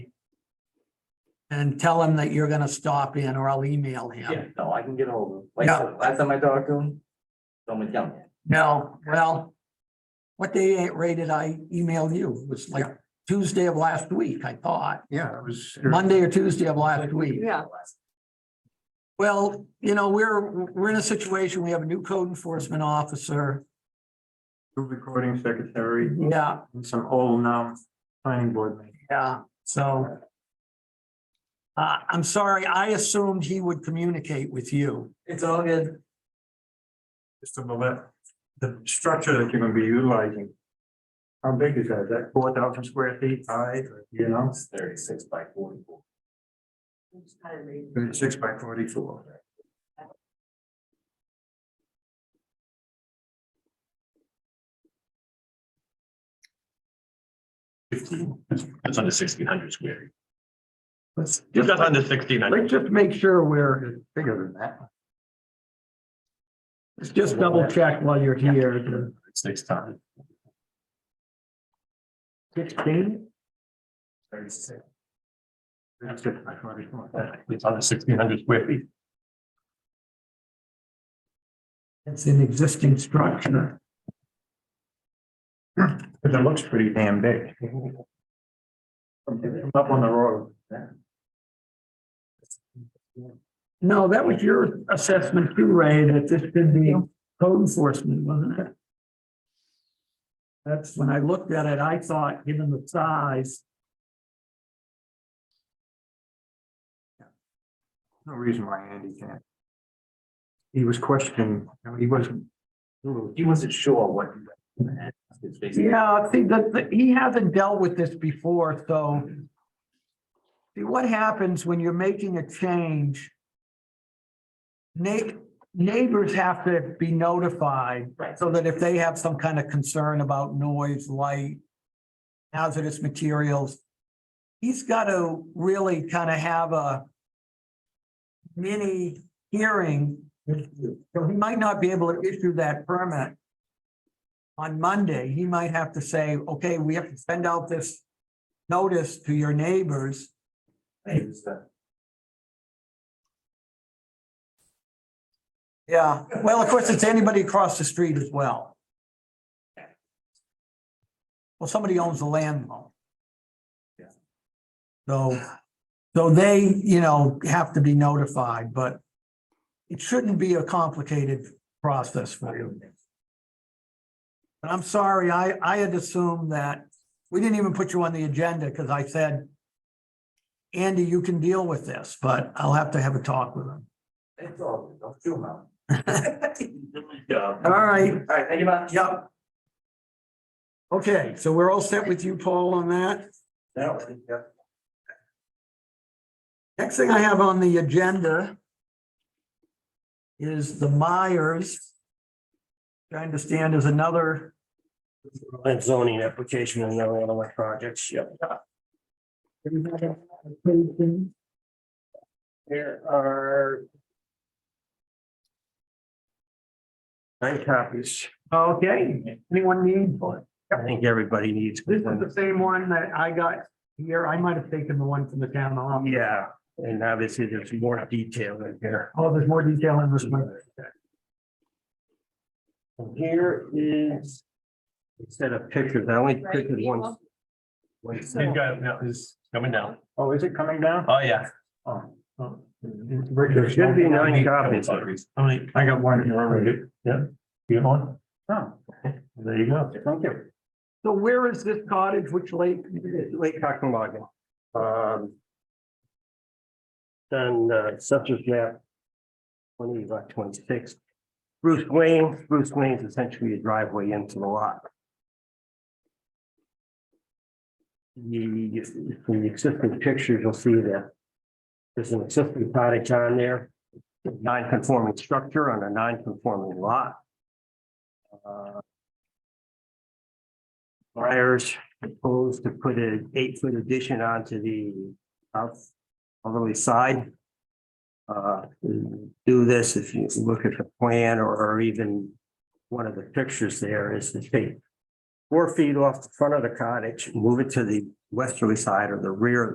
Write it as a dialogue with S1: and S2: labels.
S1: and tell him that you're gonna stop in or I'll email
S2: Yeah,
S1: him.
S2: no, I can get hold of him. Like,
S1: Yeah.
S2: so last time I talked to him, someone tell me.
S1: No, well. What day rate did I email you? It was like Tuesday of last week, I thought,
S3: Yeah, it was.
S1: Monday or Tuesday of last week.
S4: Yeah,
S1: Well, you know, we're, we're in a situation, we have a new code enforcement officer.
S3: Recording secretary
S1: Yeah,
S3: and some old now planning board. meeting.
S1: yeah, so. Uh, I'm sorry, I assumed he would communicate with you.
S2: It's all good.
S3: Just about that, the structure that you're gonna be utilizing. How big is that? Is that four thousand square feet high, or, you know,
S2: It's thirty-six by forty-four.
S3: six by forty-four?
S5: Fifteen, that's- that's under sixteen hundred square. That's just under sixteen hundred.
S3: Let's just make sure we're bigger than that.
S1: Just double check while you're here.
S5: It's next time.
S3: Sixteen?
S2: Thirty-six.
S3: Six by forty-four.
S5: It's under sixteen hundred square feet.
S1: It's an existing structure.
S3: Cause it looks pretty damn big. From Up on the road.
S1: No, that was your assessment too, Ray, that this should be code enforcement, wasn't it? That's when I looked at it, I thought, given the size,
S3: No reason why Andy can't. He was questioning, you know, he wasn't.
S2: He wasn't sure what. It's basically.
S1: yeah, see, that, that- he hasn't dealt with this before, so. See, what happens when you're making a change? Neigh- neighbors have to be notified.
S2: Right.
S1: So that if they have some kind of concern about noise, light, hazardous materials, he's got to really kind of have a mini hearing. So he might not be able to issue that permit on Monday. He might have to say, okay, we have to send out this notice to your neighbors.
S2: It was the-
S1: Yeah, well, of course, it's anybody across the street as well. Well, somebody owns the land though.
S2: Yeah.
S1: So, so they, you know, have to be notified, but it shouldn't be a complicated process for you. But I'm sorry, I, I had assumed that, we didn't even put you on the agenda because I said, Andy, you can deal with this, but I'll have to have a talk with him.
S2: It's all, good. don't feel mal.
S1: All right.
S2: All right, thank you much.
S1: Yep. Okay, so we're all set with you, Paul, on that.
S2: No, I think, yeah.
S1: Next thing I have on the agenda is the Myers. which I understand is another,
S6: That zoning application and another one of my projects, yep. There are. Nine copies.
S1: okay, anyone need? one?
S6: I think everybody needs.
S1: This is the same one that I got here. I might have taken the one from the town hall.
S6: Yeah, and obviously there's more detail in here.
S1: Oh, there's more detail in this one.
S6: Here is. Instead of pictures, I only picked one. one
S5: He's got, no, he's coming down.
S3: Oh, is it coming down?
S5: Oh, yeah.
S3: Oh, oh.
S6: There should be nine copies.
S5: Only,
S3: I got one here already.
S5: yeah, you have one?
S3: Oh,
S5: There you go.
S6: Thank you.
S1: So where is this cottage? Which lake?
S6: Lake Hockenwagon. Um. Then, uh, census map. Twenty, lot twenty-six. Bruce Wayne, Bruce Wayne's essentially a driveway into the lot. You, from the existing pictures, you'll see that. There's an existing cottage on there. Non-conforming structure on a non-conforming lot. Uh, Myers proposed to put an eight-foot addition onto the south southerly side. Uh, do this, if you look at the plan or- or even one of the pictures there is to take four feet off the front of the cottage, move it to the westerly side or the rear of